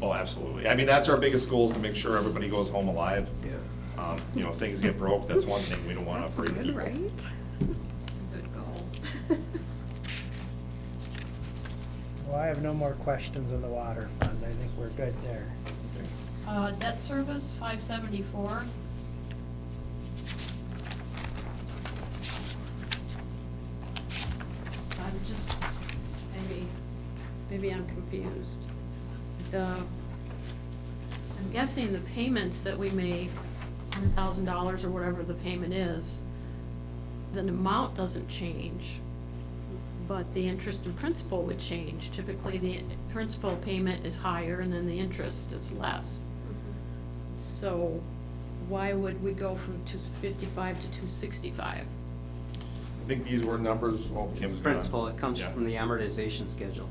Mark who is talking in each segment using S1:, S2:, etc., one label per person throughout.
S1: Oh, absolutely. I mean, that's our biggest goal is to make sure everybody goes home alive.
S2: Yeah.
S1: Um, you know, if things get broke, that's one thing. We don't want to
S3: That's
S1: break
S3: good,
S1: people.
S3: right? Good goal.
S4: Well, I have no more questions on the water fund. I think we're good there.
S5: Uh, debt service, five seventy-four. I'm just, maybe, maybe I'm confused. The, I'm guessing the payments that we make, hundred thousand dollars or whatever the payment is, the amount doesn't change, but the interest and principal would change. Typically, the principal payment is higher and then the interest is less. So why would we go from two fifty-five to two sixty-five?
S1: I think these were numbers, oh, Kim's
S6: It's
S1: gonna-
S6: principal, it comes
S1: Yeah.
S6: from the amortization schedule.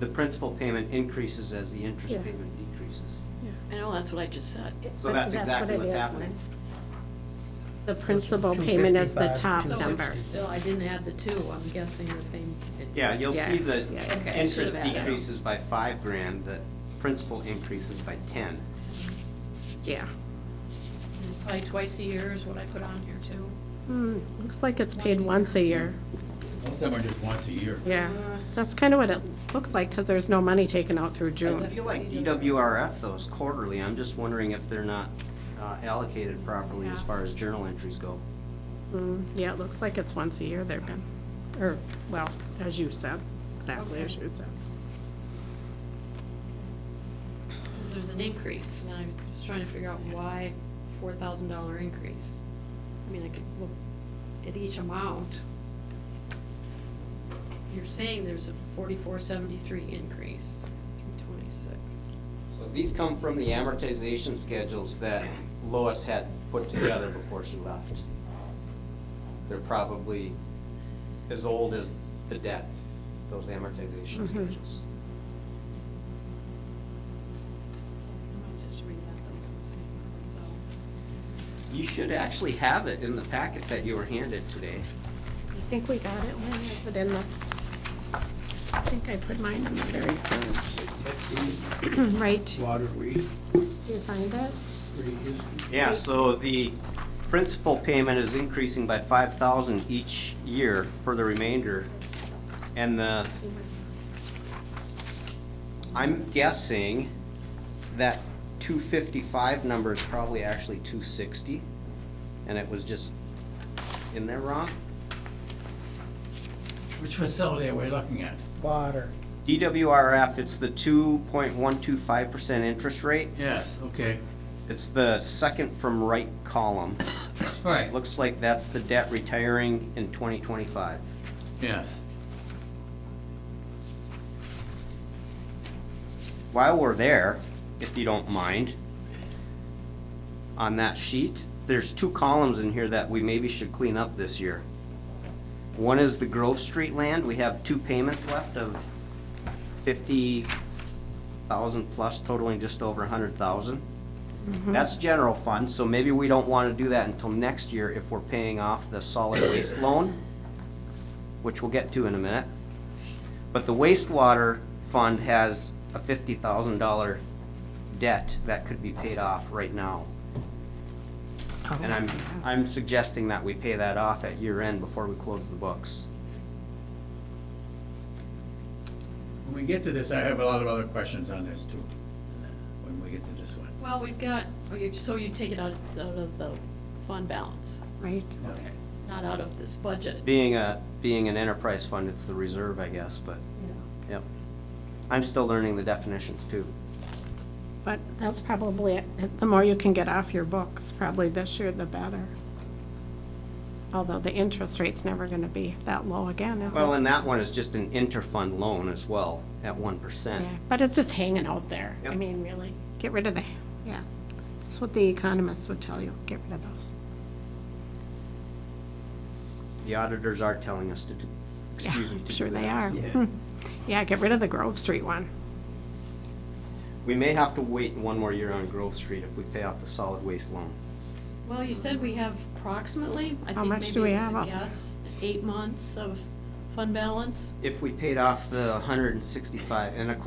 S6: The principal payment increases as the interest
S3: Yeah.
S6: payment decreases.
S5: I know, that's what I just said.
S6: So that's exactly
S3: what it
S6: what's
S3: is.
S6: happening.
S3: The principal payment is the
S4: 255,
S3: top
S5: So it's
S4: 260.
S3: number.
S5: Still, I didn't add the two, I'm guessing that they. it's-
S6: Yeah, you'll see
S3: Yeah,
S6: the
S3: yeah, yeah.
S5: Okay, I should've
S6: interest
S5: added.
S6: decreases by five grand, the principal increases by ten.
S3: Yeah.
S5: It's probably twice a year is what I put on here too.
S3: Hmm, looks like it's paid once a year.
S7: Most of them are just once a year.
S3: Yeah. That's kind of what it looks like, because there's no money taken out through
S6: I
S3: June.
S6: feel like DWRF those quarterly, I'm just wondering if they're not uh, allocated properly as
S5: Yeah.
S6: far as journal entries go.
S3: Hmm, Yeah, it looks like it's once a year they've been, or, well, as you said, exactly as
S5: Okay.
S3: you said.
S5: 'Cause There's an increase, and I'm just trying to figure out why four thousand dollar increase. I mean, I could look at each amount. You're saying there's a forty-four seventy-three increase, three twenty-six.
S6: So these come from the amortization schedules that Lois had put together before she left. They're probably as old as the debt, those amortization schedules.
S5: Just read that, those and see for myself.
S6: You should actually have it in the packet that you were handed today.
S3: I think we got it, when is it in the, I think I put mine in the very first. Right,
S2: Water read,
S3: do you find it?
S2: read history.
S6: Yeah, so the principal payment is increasing by five thousand each year for the remainder. And the I'm guessing that two fifty-five number is probably actually two sixty, and it was just in there wrong.
S7: Which facility are we looking at?
S4: Water.
S6: DWRF, it's the two point one two five percent interest rate.
S7: Yes, okay.
S6: It's the second from right column.
S7: All right, look,
S6: Looks like that's the debt retiring in twenty twenty-five.
S7: yes.
S6: While we're there, if you don't mind, on that sheet, there's two columns in here that we maybe should clean up this year. One is the Grove Street land. We have two payments left of fifty thousand plus totaling just over a hundred thousand. That's general fund, so maybe we don't wanna do that until next year if we're paying off the solid waste loan, which we'll get to in a minute. But the wastewater fund has a fifty thousand dollar debt that could be paid off right now. And I'm, I'm suggesting that we pay that off at year end before we close the books.
S7: When we get to this, I have a lot of other questions on this too, when we get to this one.
S5: Well, we've got, oh, you- so you take it out of, out of the fund balance,
S3: Right,
S5: okay, not out of this budget.
S6: Being a, being an enterprise fund, it's the reserve, I guess, but,
S5: Yeah.
S6: yep. I'm still learning the definitions too.
S3: but that's probably, it. the more you can get off your books, probably this year, the better. Although the interest rate's never gonna be that low again, is it?
S6: Well, and that one is just an interfund loan as well, at one percent.
S3: Yeah, But it's just hanging out there. I
S6: Yep.
S3: mean, really, get rid of the, yeah. That's what the economists would tell you, get rid of those.
S6: The auditors are telling us to do,
S3: Yeah,
S6: excuse me. to
S3: I'm
S6: do
S3: Sure they
S6: that.
S3: are.
S7: Yeah.
S3: Hmm. Yeah, get rid of the Grove Street one.
S6: We may have to wait one more year on Grove Street if we pay off the solid waste loan.
S5: Well, you said we have approximately, I
S3: How
S5: think
S3: much do we
S5: maybe it was a
S3: have up?
S5: guess, eight months of fund balance?
S6: If we paid off the hundred and sixty-five, and of course,